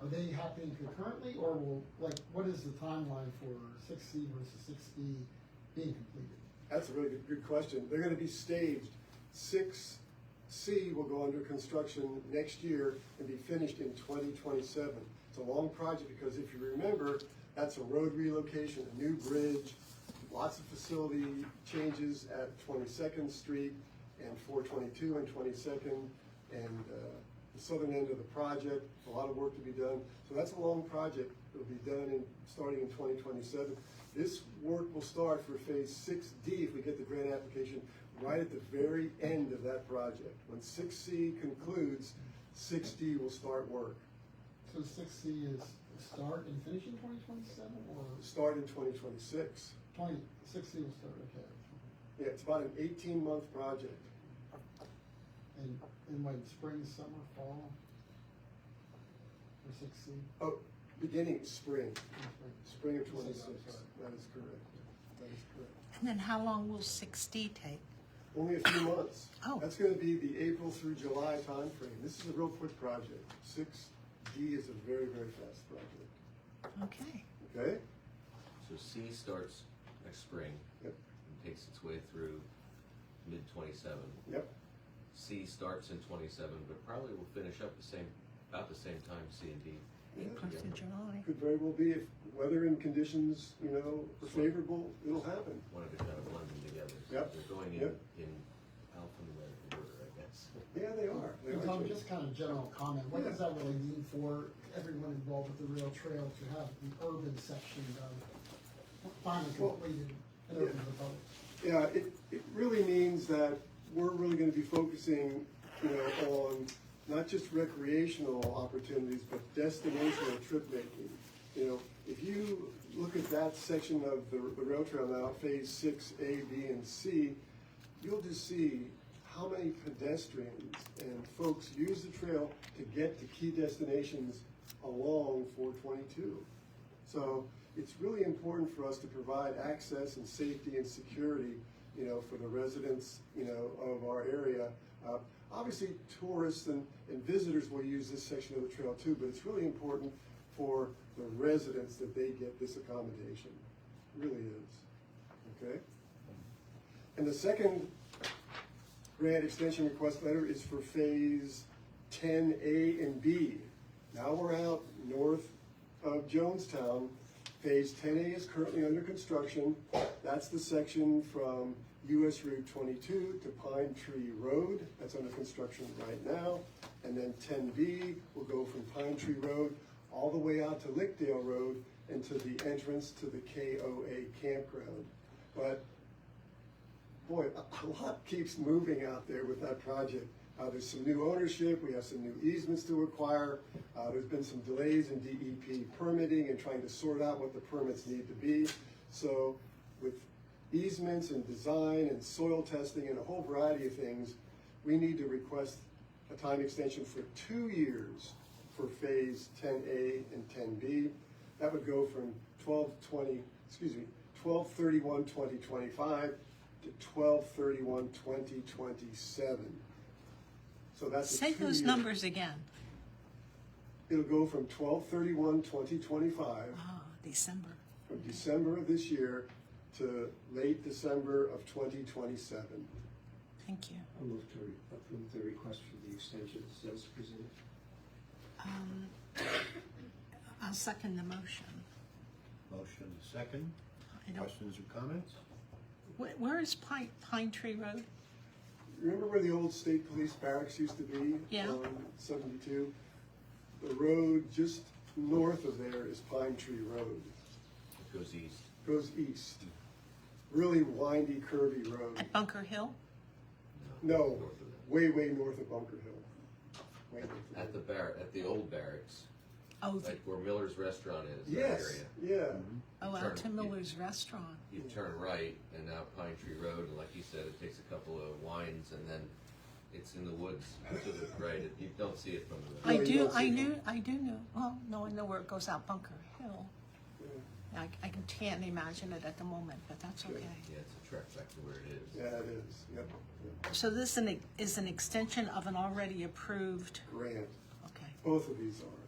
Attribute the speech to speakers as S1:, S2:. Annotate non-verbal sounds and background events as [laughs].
S1: Are they happening concurrently, or will, like, what is the timeline for six C versus six D being completed?
S2: That's a really good, good question. They're gonna be staged. Six C will go under construction next year and be finished in twenty twenty-seven. It's a long project because if you remember, that's a road relocation, a new bridge, lots of facility changes at Twenty-second Street and four twenty-two and Twenty-second and, uh, the southern end of the project, a lot of work to be done. So that's a long project. It'll be done in, starting in twenty twenty-seven. This work will start for phase six D if we get the grant application right at the very end of that project. When six C concludes, six D will start work,
S1: So six C is start and finish in twenty twenty-seven, or
S2: start in twenty twenty-six.
S1: twenty, six C will start, okay.
S2: Yeah, it's about an eighteen-month project.
S1: And, and when spring, summer, fall? For six C?
S2: Oh, beginning spring, spring of
S1: Yes, I'm
S2: twenty-six.
S1: sorry.
S2: That is correct. That is correct.
S3: And then how long will six D take?
S2: Only a few months.
S3: Oh.
S2: That's gonna be the April through July timeframe. This is a real quick project. Six D is a very, very fast project,
S3: Okay.
S2: okay?
S4: So C starts next spring
S2: Yep,
S4: and takes its way through mid twenty-seven.
S2: yep,
S4: C starts in twenty-seven, but probably will finish up the same, about the same time C and D. get
S3: Close to
S4: together.
S3: July.
S2: could very well be if weather and conditions, you know, are
S4: Sure.
S2: favorable, it'll happen.
S4: Wanted to kind of blend them together. So
S2: Yep,
S4: They're going in,
S2: yep.
S4: in alphabetical order, I guess.
S2: Yeah, they are. They
S1: And
S2: are,
S1: Tom,
S2: Jim.
S1: just kind of general comment, what does that really mean for everyone involved with the rail trail to have the urban section of finally completed and open to the public?
S2: Yeah, it, it really means that we're really gonna be focusing, you know, on not just recreational opportunities, but destinational trip making. You know, if you look at that section of the, the rail trail now, phase six, A, B, and C, you'll just see how many pedestrians and folks use the trail to get to key destinations along four twenty-two. So it's really important for us to provide access and safety and security, you know, for the residents, you know, of our area. Uh, obviously, tourists and, and visitors will use this section of the trail too, but it's really important for the residents that they get this accommodation. It really is. Okay? And the second grant extension request letter is for phase ten A and B. Now we're out north of Jonestown. Phase ten A is currently under construction. That's the section from US Route twenty-two to Pine Tree Road. That's under construction right now. And then ten B will go from Pine Tree Road all the way out to Lickdale Road and to the entrance to the KOA campground. But boy, a [laughs] a lot keeps moving out there with that project. Uh, there's some new ownership, we have some new easements to acquire, uh, there's been some delays in DEP permitting and trying to sort out what the permits need to be. So with easements and design and soil testing and a whole variety of things, we need to request a time extension for two years for phase ten A and ten B. That would go from twelve twenty, excuse me, twelve thirty-one twenty twenty-five to twelve thirty-one twenty twenty-seven. So that's a
S3: Say those
S2: two-year-
S3: numbers again.
S2: It'll go from twelve thirty-one twenty twenty-five
S3: Ah, December.
S2: from December of this year to late December of twenty twenty-seven.
S3: Thank you.
S5: I'll move to re- approve the request for the extensions as presented.
S3: Um, I'll second the motion.
S6: Motion second.
S3: I don't,
S6: Questions or comments?
S3: wh- where is Pine, Pine Tree Road?
S2: Remember where the old state police barracks used to be?
S3: Yeah.
S2: on Seventy-two? The road just north of there is Pine Tree Road,
S4: It goes east.
S2: goes east. Really windy, curvy road.
S3: At Bunker Hill?
S2: No,
S4: north of that.
S2: way, way north of Bunker Hill. Way north of
S4: At the
S2: there.
S4: bar, at the old barracks,
S3: Oh, the-
S4: like where Miller's Restaurant is, that
S2: Yes,
S4: area.
S2: yeah,
S3: oh, out to
S4: Turn.
S3: Miller's Restaurant.
S4: you turn right and now Pine Tree Road, and like you said, it takes a couple of winds and then it's in the woods to the right. It- You don't see it from the
S3: I
S2: you
S3: do,
S2: don't see
S3: I
S2: it.
S3: knew, I do know, well, no, I know where it goes out Bunker Hill.
S2: yeah,
S3: I, I can't imagine it at the moment, but that's
S2: Sure.
S3: okay.
S4: Yeah, it's a trek back to where it is.
S2: yeah, it is, yep, yep.
S3: So this is an- is an extension of an already approved,
S2: Grant,
S3: okay.
S2: both of these are.